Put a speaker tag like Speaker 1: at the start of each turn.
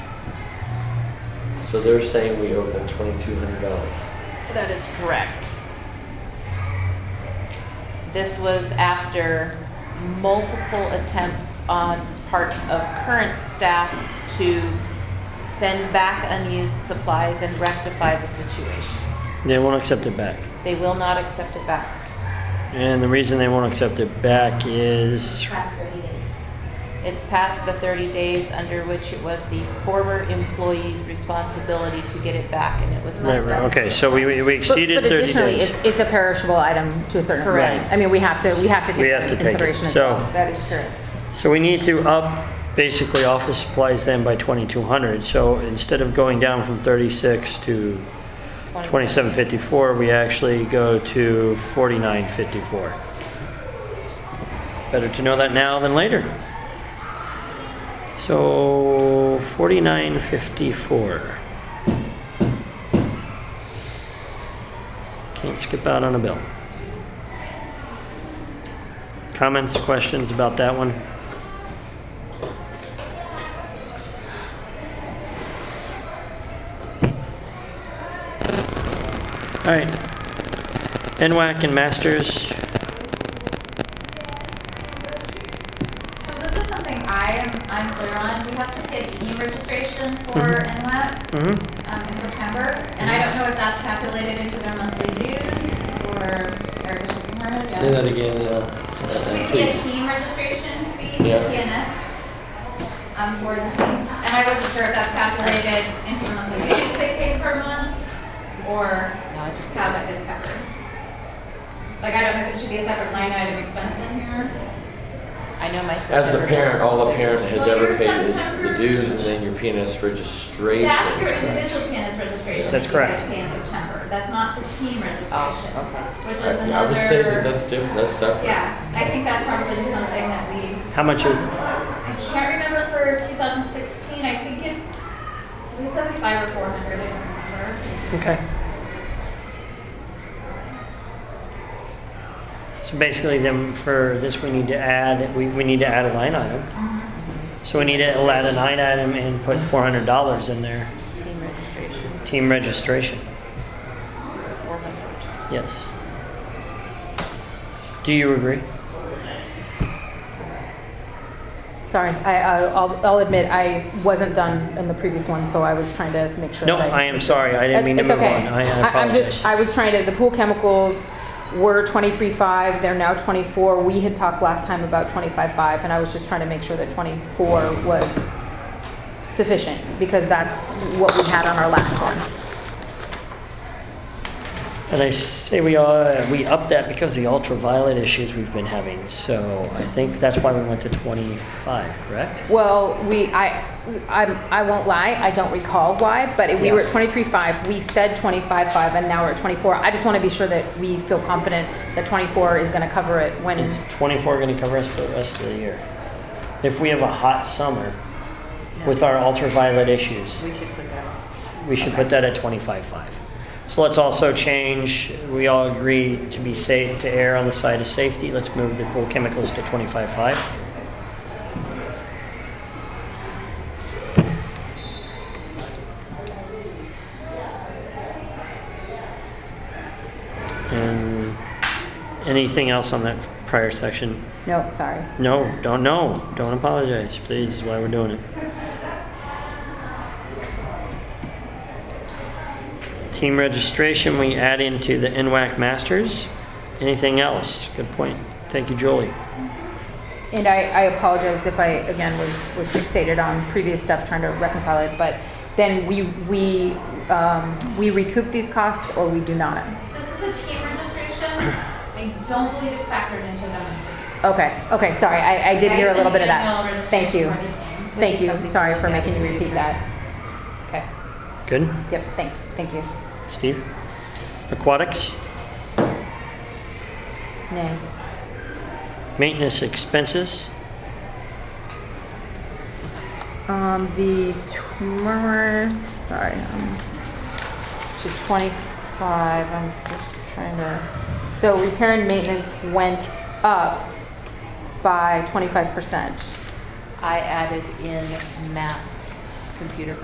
Speaker 1: So they're saying we owe them twenty-two hundred dollars.
Speaker 2: That is correct. This was after multiple attempts on parts of current staff to send back unused supplies and rectify the situation.
Speaker 3: They won't accept it back.
Speaker 2: They will not accept it back.
Speaker 3: And the reason they won't accept it back is
Speaker 4: past 30 days.
Speaker 2: It's past the 30 days under which it was the former employee's responsibility to get it back, and it was not
Speaker 3: Right, right,
Speaker 2: done.
Speaker 3: okay, so we, we
Speaker 5: But-
Speaker 3: exceeded
Speaker 5: but
Speaker 3: 30
Speaker 5: additionally,
Speaker 3: days.
Speaker 5: it's- It's a perishable item to a certain
Speaker 2: Correct.
Speaker 5: extent. I mean, we have to, we have to
Speaker 3: We
Speaker 5: take
Speaker 3: have
Speaker 5: that
Speaker 3: to
Speaker 5: into
Speaker 3: take it.
Speaker 5: consideration as
Speaker 3: So-
Speaker 5: well.
Speaker 2: That is correct.
Speaker 3: So we need to up basically office supplies then by 2,200. So instead of going down from 36 to 2754, we actually go to 4954. Better to know that now than later. So 4954. Can't skip out on a bill. Comments, questions about that one? All right. NWAC and Masters.
Speaker 4: So this is something I am unclear on. We have to get e registration for NWAP
Speaker 3: Mm-hmm.
Speaker 4: um, in September, and I don't know if that's calculated into their monthly dues or Erica should confirm it.
Speaker 1: Say
Speaker 4: yeah.
Speaker 1: that again, uh, uh,
Speaker 4: We have to get
Speaker 1: please.
Speaker 4: team registration fee to
Speaker 1: Yeah.
Speaker 4: PNS um, for the team, and I wasn't sure if that's calculated into the monthly dues they pay per month or how that gets covered. Like I don't know if it should be a separate line item expense in here.
Speaker 2: I know myself.
Speaker 1: As a parent, all a parent has
Speaker 4: Well,
Speaker 1: ever
Speaker 4: your
Speaker 1: paid is the
Speaker 4: September-
Speaker 1: dues and then your PNS registration.
Speaker 4: That's your individual pianist registration.
Speaker 3: That's
Speaker 4: that you guys
Speaker 3: correct.
Speaker 4: pay in September. That's not the team registration.
Speaker 2: Oh,
Speaker 4: Which is another.
Speaker 1: I I would say that that's different, that's separate.
Speaker 4: Yeah, I think that's probably just something that we,
Speaker 3: How much is,
Speaker 4: I can't remember for 2016, I think it's 375 or 400, I don't remember.
Speaker 3: okay. So basically then for this, we need to add, we, we need to add a line item. So we need to add a line item and put four hundred dollars in there,
Speaker 2: Team registration,
Speaker 3: team registration,
Speaker 2: 400.
Speaker 3: yes. Do you agree?
Speaker 5: Sorry, I, I- I'll, I'll admit, I wasn't done in the previous one, so I was trying to make sure.
Speaker 3: No,
Speaker 5: that
Speaker 3: I am sorry, I didn't mean to
Speaker 5: It's
Speaker 3: move on,
Speaker 5: okay.
Speaker 3: I I
Speaker 5: I- I'm just,
Speaker 3: apologize.
Speaker 5: I was trying to, the pool chemicals were 23.5, they're now 24. We had talked last time about 25.5, and I was just trying to make sure that 24 was sufficient, because that's what we had on our last one.
Speaker 3: And I say we are, we upped that because of the ultraviolet issues we've been having, so I think that's why we went to 25, correct?
Speaker 5: Well, we, I, I, I won't lie, I don't recall why, but we were at
Speaker 3: Yeah.
Speaker 5: twenty-three five, we said twenty-five five, and now we're at twenty-four. I just want to be sure that we feel confident that twenty-four is going to cover it when,
Speaker 3: Is 24 going to cover us for the rest of the year? If we have a hot summer with our ultraviolet issues,
Speaker 2: We should put that on.
Speaker 3: we should put that at 25.5. So let's also change, we all agree to be safe, to err on the side of safety, let's move the pool chemicals to 25.5. And anything else on that prior section?
Speaker 5: no, sorry.
Speaker 3: No, don't, no, don't apologize, please, is why we're doing it. Team registration, we add into the NWAC Masters. Anything else? Good point. Thank you, Julie.
Speaker 5: And I, I apologize if I, again, was, was fixated on previous stuff, trying to reconcile it, but then we, we, um, we recoup these costs or we do not.
Speaker 4: This is a team registration. I don't believe it's factored into the monthly.
Speaker 5: Okay, okay, sorry, I, I did hear a little bit of
Speaker 4: It's an
Speaker 5: that.
Speaker 4: annual
Speaker 5: Thank you.
Speaker 4: registration for the team.
Speaker 5: Thank you,
Speaker 2: Something
Speaker 5: sorry
Speaker 2: to
Speaker 5: for
Speaker 2: look at
Speaker 5: making you
Speaker 2: in the
Speaker 5: repeat
Speaker 2: future.
Speaker 5: that. Okay,
Speaker 3: Good?
Speaker 5: yep, thanks, thank you.
Speaker 3: Steve? Aquatics?
Speaker 5: Nay.
Speaker 3: Maintenance expenses?
Speaker 5: Um, the tomorrow, sorry, um, to twenty-five, I'm just trying to, so repair and maintenance went up by twenty-five percent.
Speaker 2: I added in Matt's computer